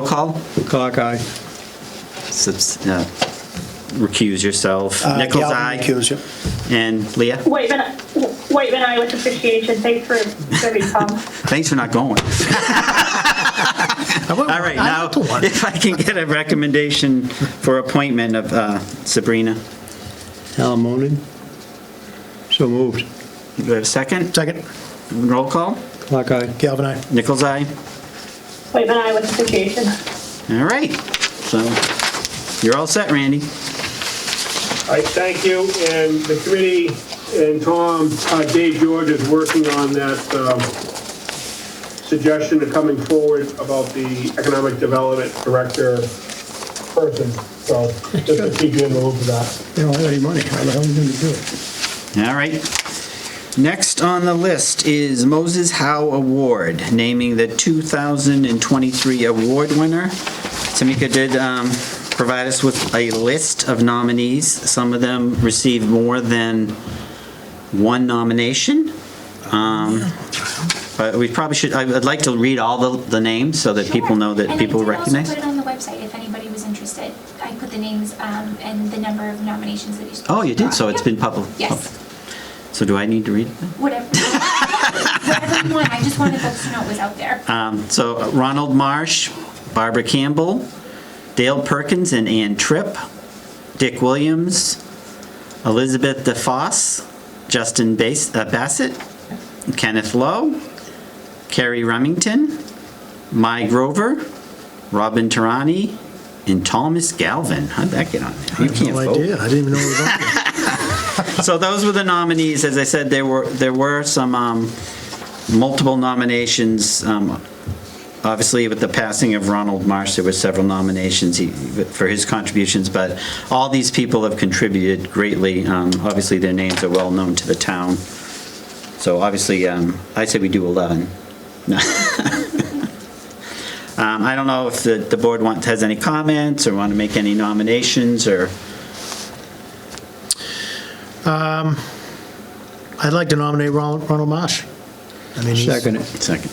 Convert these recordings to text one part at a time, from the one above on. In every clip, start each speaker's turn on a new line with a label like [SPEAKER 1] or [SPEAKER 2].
[SPEAKER 1] Roll call?
[SPEAKER 2] Clark, aye.
[SPEAKER 1] Subs- uh, Recuse yourself.
[SPEAKER 3] Uh,
[SPEAKER 1] Nichols,
[SPEAKER 2] Galvin
[SPEAKER 1] aye.
[SPEAKER 2] Uh, recuse you.
[SPEAKER 1] And Leah,
[SPEAKER 4] Waitman, Waitman, I with appreciation. Thanks for very calm.
[SPEAKER 1] thanks for not going.
[SPEAKER 2] I went-
[SPEAKER 1] All right,
[SPEAKER 2] I
[SPEAKER 1] now,
[SPEAKER 2] went to one.
[SPEAKER 1] if I can get a recommendation for appointment of uh, Sabrina.
[SPEAKER 2] Alan Moaning. So moved.
[SPEAKER 1] Do we have a second?
[SPEAKER 2] Second.
[SPEAKER 1] Roll call?
[SPEAKER 2] Clark, aye. Galvin, aye.
[SPEAKER 1] Nichols, aye.
[SPEAKER 4] Waitman, I with appreciation.
[SPEAKER 1] All right, so you're all set, Randy.
[SPEAKER 5] I thank you, and the committee and Tom, uh, Dave George is working on that um, suggestion of coming forward about the economic development director person, so just to keep you in the loop of that.
[SPEAKER 2] They don't have any money. How the hell are you going to do it?
[SPEAKER 1] All right. Next on the list is Moses Howe Award, naming the 2023 award winner. Tamika did um, provide us with a list of nominees. Some of them received more than one nomination. Um, But we probably should, I- I'd like to read all the the names so that people
[SPEAKER 6] Sure.
[SPEAKER 1] know that
[SPEAKER 6] And
[SPEAKER 1] people recognize.
[SPEAKER 6] I did also put it on the website if anybody was interested. I put the names um, and the number of nominations that each.
[SPEAKER 1] Oh, you did, so it's
[SPEAKER 6] Yep.
[SPEAKER 1] been public.
[SPEAKER 6] Yes,
[SPEAKER 1] So do I need to read it?
[SPEAKER 6] whatever. Whatever you want, I just wanted folks to know it was out there.
[SPEAKER 1] Um, So Ronald Marsh, Barbara Campbell, Dale Perkins and Ann Tripp, Dick Williams, Elizabeth DeFosse, Justin Bas- uh, Bassett, Kenneth Lowe, Carrie Remington, Mai Grover, Robin Tarani, and Thomas Galvin. How'd that get on there? You can't
[SPEAKER 2] No
[SPEAKER 1] vote.
[SPEAKER 2] idea. I didn't even know it was on there.
[SPEAKER 1] So those were the nominees. As I said, there were, there were some um, multiple nominations. um, Obviously, with the passing of Ronald Marsh, there were several nominations he- for his contributions, but all these people have contributed greatly. Um, Obviously, their names are well-known to the town. So obviously, um, I say we do 11. No. Um, I don't know if the the board wants, has any comments or want to make any nominations or...
[SPEAKER 3] I'd like to nominate Ronald Ronald Marsh. I mean, he's-
[SPEAKER 2] Second it.
[SPEAKER 1] Second.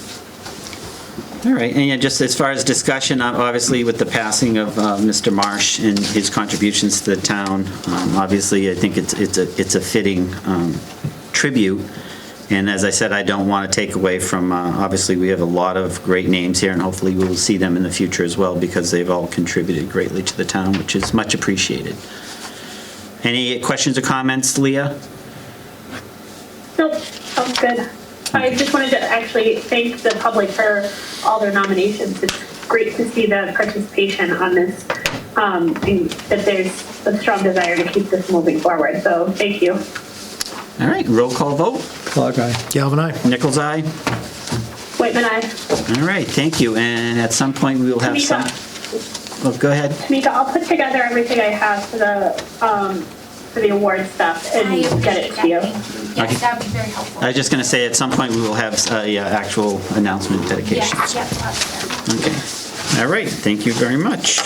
[SPEAKER 1] All right, and yeah, just as far as discussion, ob- obviously with the passing of uh, Mr. Marsh and his contributions to the town, um, obviously, I think it's it's a it's a fitting um, tribute. And as I said, I don't want to take away from, uh, obviously, we have a lot of great names here, and hopefully we will see them in the future as well, because they've all contributed greatly to the town, which is much appreciated. Any questions or comments, Leah?
[SPEAKER 4] Nope, sounds good. I just wanted to actually thank the public for all their nominations. It's great to see the participation on this, um, and that there's a strong desire to keep this moving forward. So thank you.
[SPEAKER 1] All right, roll call vote.
[SPEAKER 2] Clark, aye.
[SPEAKER 3] Galvin, aye.
[SPEAKER 1] Nichols, aye?
[SPEAKER 4] Waitman, I,
[SPEAKER 1] All right, thank you, and at some point, we will have some,
[SPEAKER 4] Tamika,
[SPEAKER 1] oh, go ahead.
[SPEAKER 4] Tamika, I'll put together everything I have for the, um, for the award stuff
[SPEAKER 6] I
[SPEAKER 4] and get
[SPEAKER 6] appreciate
[SPEAKER 4] it
[SPEAKER 6] that.
[SPEAKER 4] to you.
[SPEAKER 6] Thank you.
[SPEAKER 1] Okay.
[SPEAKER 6] Yes, that would be very helpful.
[SPEAKER 1] I was just going to say, at some point, we will have a uh, actual announcement dedication.
[SPEAKER 6] Yes, yep, that's
[SPEAKER 1] Okay,
[SPEAKER 6] there.
[SPEAKER 1] all right, thank you very much.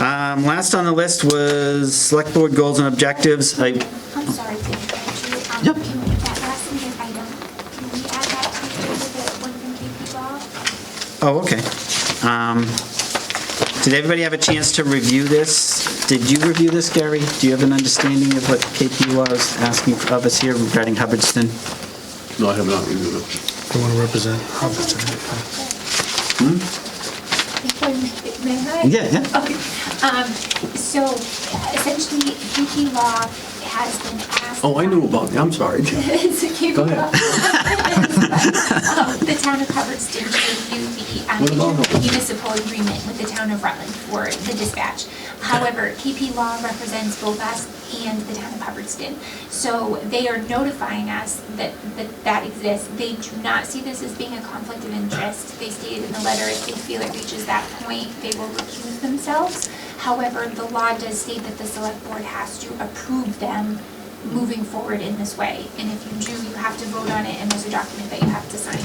[SPEAKER 1] Um, Last on the list was Select Board Goals and Objectives. I-
[SPEAKER 6] I'm sorry to interrupt you.
[SPEAKER 1] Yep.
[SPEAKER 6] Um, Can we, that last meeting item, can we add that to the one from KP Law?
[SPEAKER 1] Oh, okay. Um, Did everybody have a chance to review this? Did you review this, Gary? Do you have an understanding of what KP Law is asking of us here regarding Hubbardston?
[SPEAKER 7] No, I have not reviewed it.
[SPEAKER 3] I want to represent.
[SPEAKER 6] May I?
[SPEAKER 1] Hmm? Yeah, yeah.
[SPEAKER 6] Okay, um, so essentially, KP Law has been asked.
[SPEAKER 7] Oh, I knew about it, I'm sorry.
[SPEAKER 6] It's a KP
[SPEAKER 7] Go ahead.
[SPEAKER 6] Law. Um, The town of Hubbardston to review the um,
[SPEAKER 7] What about Hubbardston?
[SPEAKER 6] municipal agreement with the town of Rutland for the dispatch. However, KP Law represents both us and the town of Hubbardston. So they are notifying us that, that that exists. They do not see this as being a conflict of interest. They stated in the letter, if they feel it reaches that point, they will recuse themselves. However, the law does state that the select board has to approve them moving forward in this way. And if you do, you have to vote on it, and there's a document that you have to sign,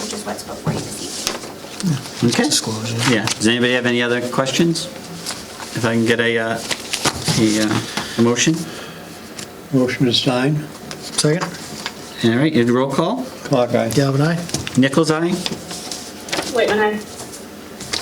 [SPEAKER 6] which is what's before you this evening.
[SPEAKER 1] Okay.
[SPEAKER 3] Disclosure.
[SPEAKER 1] Yeah, does anybody have any other questions? If I can get a, uh, a uh, a motion?
[SPEAKER 2] Motion to sign.
[SPEAKER 3] Second.
[SPEAKER 1] All right, and roll call?
[SPEAKER 2] Clark, aye.
[SPEAKER 3] Galvin, aye.
[SPEAKER 1] Nichols, aye?
[SPEAKER 4] Waitman, I.